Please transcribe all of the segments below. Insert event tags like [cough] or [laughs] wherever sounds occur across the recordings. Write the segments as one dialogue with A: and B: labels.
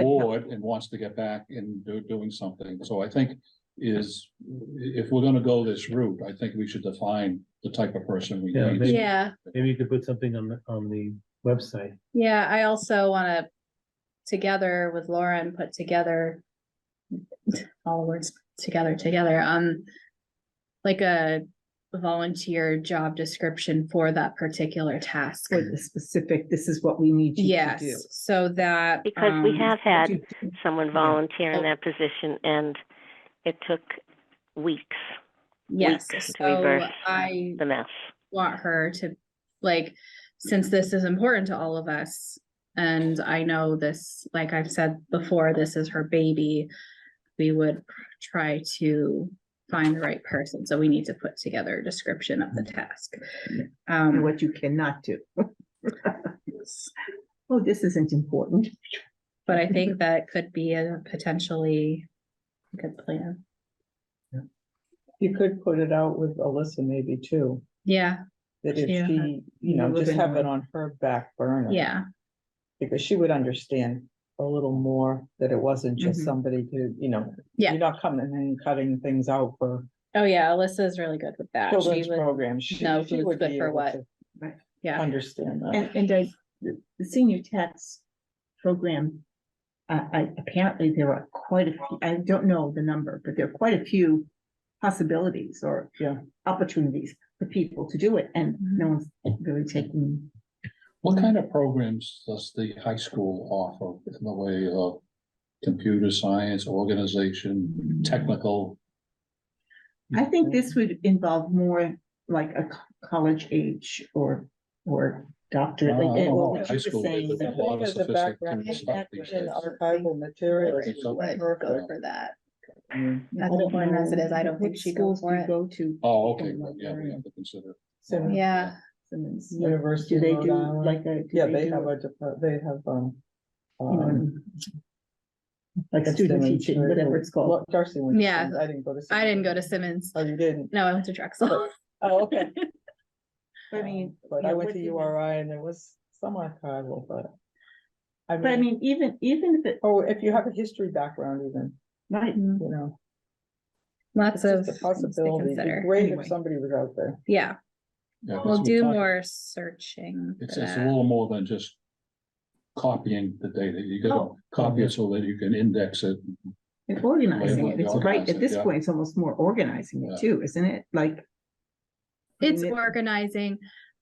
A: know it and wants to get back and do, doing something. So I think is, i- if we're gonna go this route, I think we should define the type of person we
B: Yeah,
A: need.
B: maybe-
C: Yeah,
B: Maybe you could put something on the, on the website.
C: yeah, I also wanna, together with Lauren, put together. [laughs] All the words together, together, um, like a volunteer job description for that particular task.
D: For the specific, this is what we need you to do.
C: Yes, so that.
E: Because we
C: um,
E: have had
D: You do-
E: someone volunteer in that position and it took weeks,
C: Yes,
E: weeks to
C: so
E: reverse
C: I
E: the mess.
C: want her to, like, since this is important to all of us. And I know this, like I've said before, this is her baby. We would try to find the right person, so we need to put together a description of the task.
D: And
C: Um,
D: what you cannot do. Oh, this isn't important.
C: but I think that could be a potentially good plan.
F: You could put it out with Alyssa maybe too,
C: Yeah,
F: that if
C: Yeah.
F: she,
D: You
F: you know,
D: live
F: just
D: in
F: have it
D: a-
F: on her back burner.
C: yeah,
F: Because she would understand a little more that it wasn't just
C: Mhm.
F: somebody who, you know.
C: Yeah.
F: You're not coming in and cutting things out for
C: oh yeah, Alyssa's really good with that. She
F: children's
C: was
F: programs. She-
C: know
F: she
C: who's
F: would
C: good
F: be
C: for
F: able
C: what.
F: to
D: Right.
C: Yeah.
F: Understand that.
D: And, and I, the the senior tax program, I, I, apparently there are quite a few, I don't know the number, but there are quite a few possibilities or
F: Yeah.
D: opportunities for people to do it, and no one's really taking,
A: What kind of programs does the high school offer in the way of computer science, organization, technical?
D: I think
A: Mm-hmm.
D: this would involve more like a co- college age or, or doctorate, like, and what
A: Oh,
D: would
A: high
D: you were
A: school,
D: saying.
A: there's a
D: about-
A: lot of
F: As a
A: sophisticated
F: background
A: stuff these
F: in
A: days.
F: Archival materials.
A: Right.
F: is
A: So-
C: would
F: perfect.
C: go for that.
F: I mean,
D: I
C: As
D: don't
C: important as it
D: know
C: is, I don't think
D: which
C: she'd go
D: schools
C: for
D: do
C: it.
D: Go to.
A: Oh, okay, well, yeah, we have to consider.
F: so-
C: Yeah,
D: Simmons.
F: University
D: Do
F: of
D: they
F: Rhode
D: do
F: Island.
D: like a? do
F: Yeah, they
D: do
F: have
D: a-
F: a, depart- they have, um.
D: you know,
F: um,
D: Like a student teaching, whatever it's called.
F: Well, Darcy went. to
C: Yeah,
F: Simmons. I didn't go to.
C: I didn't
F: Simmons.
C: go to Simmons.
F: Oh, you didn't?
C: No, I went to [laughs] Drexel.
F: Oh, [laughs] okay.
D: I mean,
F: But
D: yeah,
F: I went
D: what
F: to
D: do you-
F: URI and there was some archival, but.
D: But I mean, even, even if it,
F: Oh, if you have a history background even,
D: right,
C: Mm,
F: you know.
C: Lots
F: it's
C: of
F: just a
C: things to
F: possibility. It'd be
C: consider.
F: Great
D: Anyway.
F: if somebody was out there.
C: Yeah,
A: Yeah, 'cause
C: we'll
A: we're
C: do
A: talking-
C: more searching. for
A: It's, it's a
C: that.
A: little more than just copying the data. You gotta
D: Oh.
A: copy it so that you can index it.
D: and organizing
A: Label
D: it,
A: it,
D: it's right,
A: organize it,
D: at this
A: yeah.
D: point, it's almost more organizing
A: Yeah.
D: it too, isn't it? Like.
C: It's
D: putting it-
C: organizing,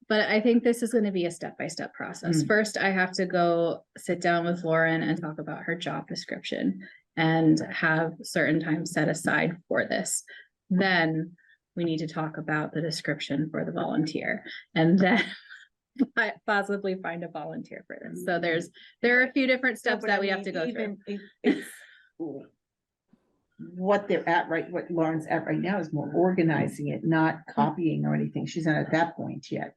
C: but I think this is gonna be a step-by-step process.
D: Mm.
C: First, I have to go sit down with Lauren and talk about her job description and have certain time set aside for this. Then we need to talk about the description for the volunteer and [laughs] then po- possibly find a volunteer for this. So there's, there are a few different steps
D: but
C: that
D: I
C: we have
D: mean,
C: to go through.
D: even if it's What they're at, right, what Lauren's at right now is more organizing it, not copying or anything. She's not at that point yet,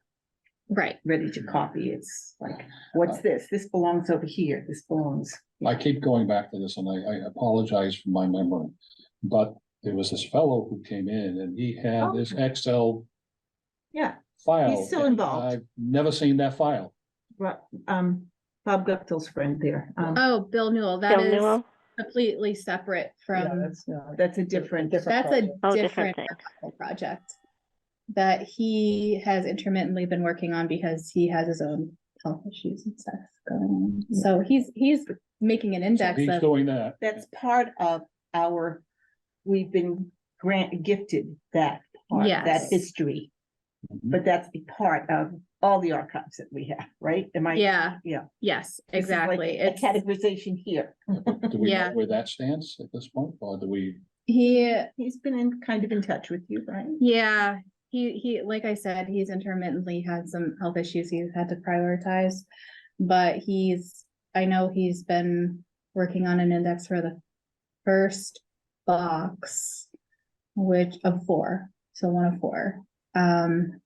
C: Right.
D: ready to copy. It's like, what's this? This belongs over here. This belongs.
A: I keep going back to this and I, I apologize for my memory. But there was this fellow who came in and he had this Excel
D: Yeah,
A: file.
D: Oh. still
A: and
D: involved.
A: I've never seen that file.
D: Ro- um, Bob Guptill's friend there. Um,
C: Oh, Bill Newell, that
E: Bill
C: is
E: Newell?
C: completely separate
F: Yeah,
C: from,
F: that's, yeah,
D: that's a different, different.
C: that's a
E: Oh,
C: different
E: different thing.
C: project that he has intermittently been working on because he has his own health issues and stuff going on. So he's, he's making an
A: So
C: index
A: He's
C: of,
A: doing that.
D: That's part of our, we've been grant gifted that, part, that
C: Yes.
D: history. But that's a part of all the archives that we have, right? Am I?
C: yeah.
D: Yeah.
C: Yes,
D: This is like
C: exactly.
D: A
C: It's,
D: categorization here.
A: Do we know
C: Yeah.
A: where that stands at this point? Or do we,
C: he,
D: He's been in, kind of in touch with you, right?
C: yeah, he, he, like I said, he's intermittently had some health issues he's had to prioritize. But he's, I know he's been working on an index for the first box, which of four, so one of four. Um.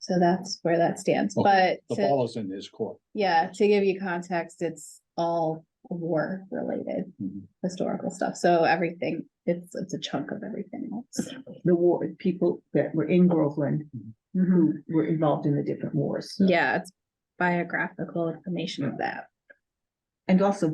C: So that's where that stands, but
A: Okay, the
C: to-
A: ball is in his court?
C: yeah, to give you context, it's all war related
A: Mhm.
C: historical stuff. So everything, it's, it's a chunk of everything else.
D: The war, people that were in Groveland, who were involved in the different wars.
C: Yeah, it's biographical information of that.
D: And also